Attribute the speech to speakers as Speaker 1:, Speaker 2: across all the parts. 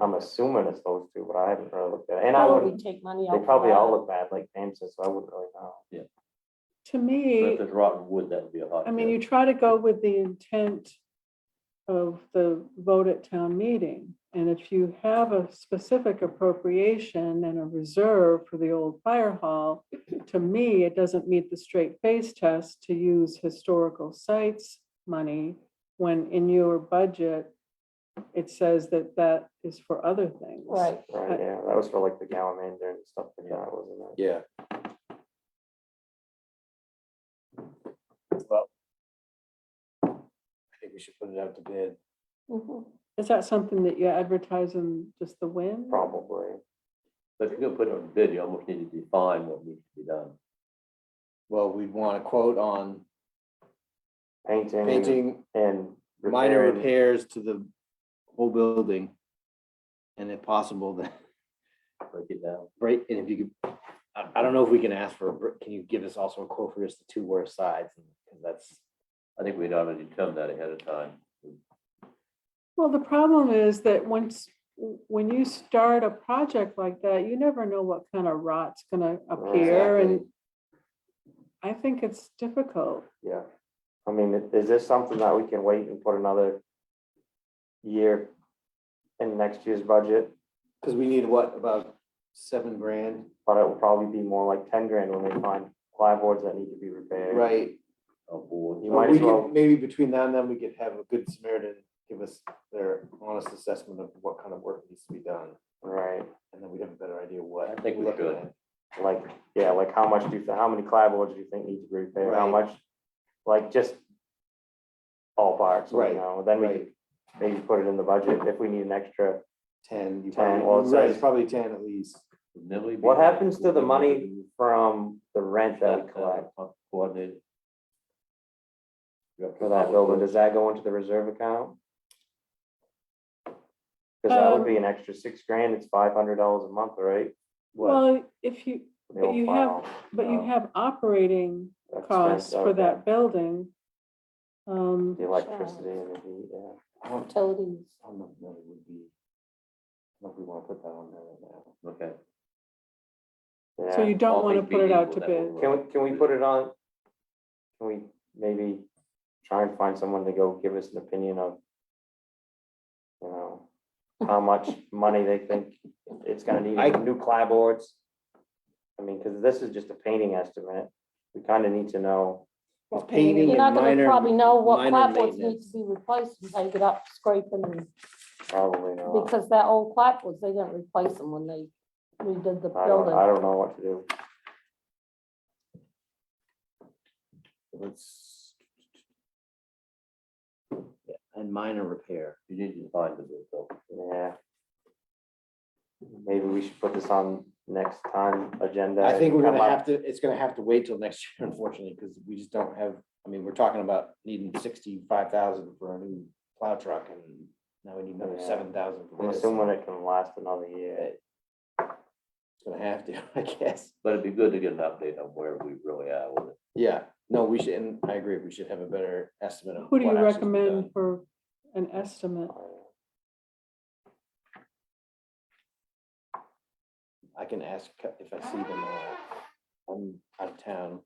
Speaker 1: I'm assuming it's those two, but I haven't really looked at it. And I
Speaker 2: Probably
Speaker 1: wouldn't,
Speaker 2: take money out.
Speaker 1: they
Speaker 2: for
Speaker 1: probably
Speaker 2: that.
Speaker 1: all look bad, like James said, so I wouldn't really know.
Speaker 3: To
Speaker 4: But if
Speaker 3: me,
Speaker 4: there's rotten wood, that would be a hot.
Speaker 3: I mean,
Speaker 4: tip.
Speaker 3: you try to go with the intent of the vote at town meeting. And if you have a specific appropriation and a reserve for the old fire hall, to me, it doesn't meet the straight face test to use historical sites money when in your budget, it says that that is for other things.
Speaker 2: Right,
Speaker 1: Right, yeah, that was for like the Gallimander and stuff like that, wasn't it?
Speaker 5: Yeah. Well. I think we should put it out to bid.
Speaker 2: Mhm.
Speaker 3: Is that something that you advertise in just the wind?
Speaker 1: Probably.
Speaker 4: But if you're gonna put it on bid, you almost need to define what needs to be done.
Speaker 5: Well, we'd want a quote on
Speaker 1: Painting
Speaker 5: painting
Speaker 1: and.
Speaker 5: minor
Speaker 1: repairing.
Speaker 5: repairs to the whole building. And if possible, then
Speaker 4: Break it down.
Speaker 5: break, and if you could, I, I don't know if we can ask for, a br- can you give us also a quote for just the two worst sides? Cause that's,
Speaker 4: I think we'd ought to determine that ahead of time.
Speaker 3: Well, the problem is that once, when you start a project like that, you never know what kind of rot's gonna appear and I think it's difficult.
Speaker 1: Yeah, I mean, i- is this something that we can wait and put another year in next year's budget?
Speaker 5: cause we need what, about seven grand?
Speaker 1: But it will probably be more like ten grand when we find plywood's that need to be repaired.
Speaker 5: Right,
Speaker 4: Oh, boy.
Speaker 1: You
Speaker 5: Well,
Speaker 1: might
Speaker 5: we
Speaker 1: as
Speaker 5: could-
Speaker 1: well,
Speaker 5: Maybe between now and then, we could have a good Samaritan give us their honest assessment of what kind of work needs to be done,
Speaker 1: right,
Speaker 5: and then we'd have a better idea what.
Speaker 4: I think we
Speaker 5: we're looking
Speaker 4: should.
Speaker 5: at.
Speaker 1: like, yeah, like how much do you, thi- how many plywood's do you think need to be repaired? How
Speaker 5: Right.
Speaker 1: much? Like just all parts, you
Speaker 5: Right,
Speaker 1: know, then we
Speaker 5: right.
Speaker 1: could maybe put it in the budget if we need an extra.
Speaker 5: Ten,
Speaker 1: 10,
Speaker 5: you probably,
Speaker 1: well, it
Speaker 5: you're right,
Speaker 1: says-
Speaker 5: it's probably ten at least.
Speaker 4: Never be-
Speaker 1: What happens to the money from the rent that
Speaker 4: uh,
Speaker 1: we collect
Speaker 4: Coordinated.
Speaker 1: for that building? Does that go into the reserve account? Cause that would
Speaker 3: Um,
Speaker 1: be an extra six grand, it's five hundred dollars a month, right?
Speaker 3: Well, if you,
Speaker 1: The
Speaker 3: but
Speaker 1: old
Speaker 3: you have
Speaker 1: file
Speaker 3: but you
Speaker 1: Oh.
Speaker 3: have operating
Speaker 1: expense,
Speaker 3: costs for
Speaker 1: okay.
Speaker 3: that building. Um,
Speaker 1: The electricity and the heat, yeah.
Speaker 5: I don't,
Speaker 2: Utilities.
Speaker 5: I don't know if that would be. I don't know if we wanna put that on there right now.
Speaker 4: Okay.
Speaker 3: so
Speaker 1: Yeah,
Speaker 3: you don't want to put it out to bid.
Speaker 4: Well,
Speaker 1: can we, can we put it on? Can we maybe try and find someone to go give us an opinion of? You know, how much money they think it's gonna need,
Speaker 5: I-
Speaker 1: new clapboards? I mean, cause this is just a painting estimate, we kinda need to know,
Speaker 5: Well,
Speaker 2: I mean,
Speaker 5: painting
Speaker 2: You're
Speaker 5: and
Speaker 2: not gonna
Speaker 5: minor-
Speaker 2: probably know what
Speaker 5: minor
Speaker 2: clapboards need
Speaker 5: maintenance.
Speaker 2: to be replaced until you get up scraping them,
Speaker 1: probably not.
Speaker 2: because that old clapboards, they didn't replace them when they redid the
Speaker 1: I don't, I
Speaker 2: building.
Speaker 1: don't know what to do.
Speaker 5: Let's. Yeah, And minor repair.
Speaker 4: You need to define the bid though.
Speaker 1: Yeah. Maybe we should put this on next time agenda.
Speaker 5: I think we're
Speaker 1: Come
Speaker 5: gonna
Speaker 1: up-
Speaker 5: have to, it's gonna have to wait till next year unfortunately, because we just don't have, I mean, we're talking about needing sixty-five thousand for a new plow truck and now we need another
Speaker 1: Yeah.
Speaker 5: seven thousand
Speaker 1: I'm
Speaker 5: for this.
Speaker 1: assuming it can last another year.
Speaker 5: It's Gonna have to, I guess.
Speaker 4: But it'd be good to get an update on where we really are with it.
Speaker 5: Yeah, no, we should, and I agree, we should have a better estimate of.
Speaker 3: Who do you
Speaker 5: what actually has been
Speaker 3: recommend
Speaker 5: done.
Speaker 3: for an estimate?
Speaker 5: I can ask Ca- if I see them, uh, I'm out of town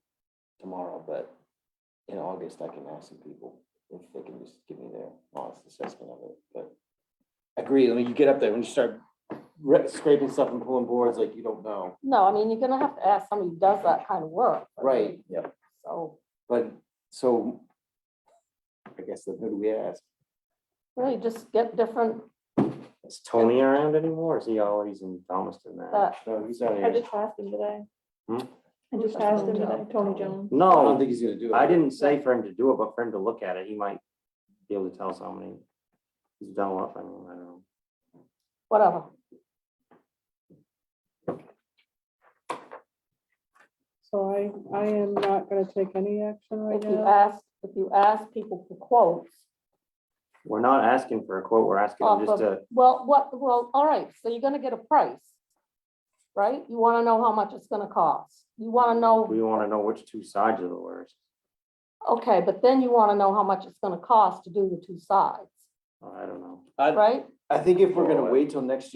Speaker 5: tomorrow, but in August, I can ask some people if they can just give me their honest assessment of it, but. Agree, I mean, you get up there, when you start re- scraping stuff and pulling boards, like you don't know,
Speaker 2: No, I mean, you're gonna have to ask somebody who does that kind of work. I mean,
Speaker 5: right,
Speaker 2: So,
Speaker 5: but, so. I guess then who do we ask?
Speaker 2: really just get different,
Speaker 1: Is Tony around anymore? or Is he always in Thomaston now?
Speaker 2: that,
Speaker 5: No, he's not
Speaker 6: I
Speaker 5: here,
Speaker 6: just asked him today.
Speaker 1: Hmm?
Speaker 6: I just
Speaker 2: That's
Speaker 6: asked him
Speaker 2: Tony
Speaker 6: today,
Speaker 2: Jones.
Speaker 6: Tony Jones.
Speaker 5: I don't
Speaker 1: No,
Speaker 5: think he's gonna do it.
Speaker 1: I didn't say for him to do it, but for him to look at it, he might be able to tell us how many he's done what, I mean, I don't know.
Speaker 2: whatever.
Speaker 3: So I, I am not going to take any action right
Speaker 2: If you
Speaker 3: now.
Speaker 2: ask, if you ask people for quotes,
Speaker 1: We're not asking for a quote, we're asking him
Speaker 2: Off
Speaker 1: just
Speaker 2: of-
Speaker 1: to,
Speaker 2: Well, what, well, all right, so you're gonna get a price, right? You wanna know how much it's gonna cost. You wanna know,
Speaker 1: we wanna know which two sides are the worst.
Speaker 2: okay, but then you wanna know how much it's gonna cost to do the two sides,
Speaker 1: I don't know.
Speaker 5: I-
Speaker 2: right?
Speaker 5: Oh. I think if we're gonna wait till next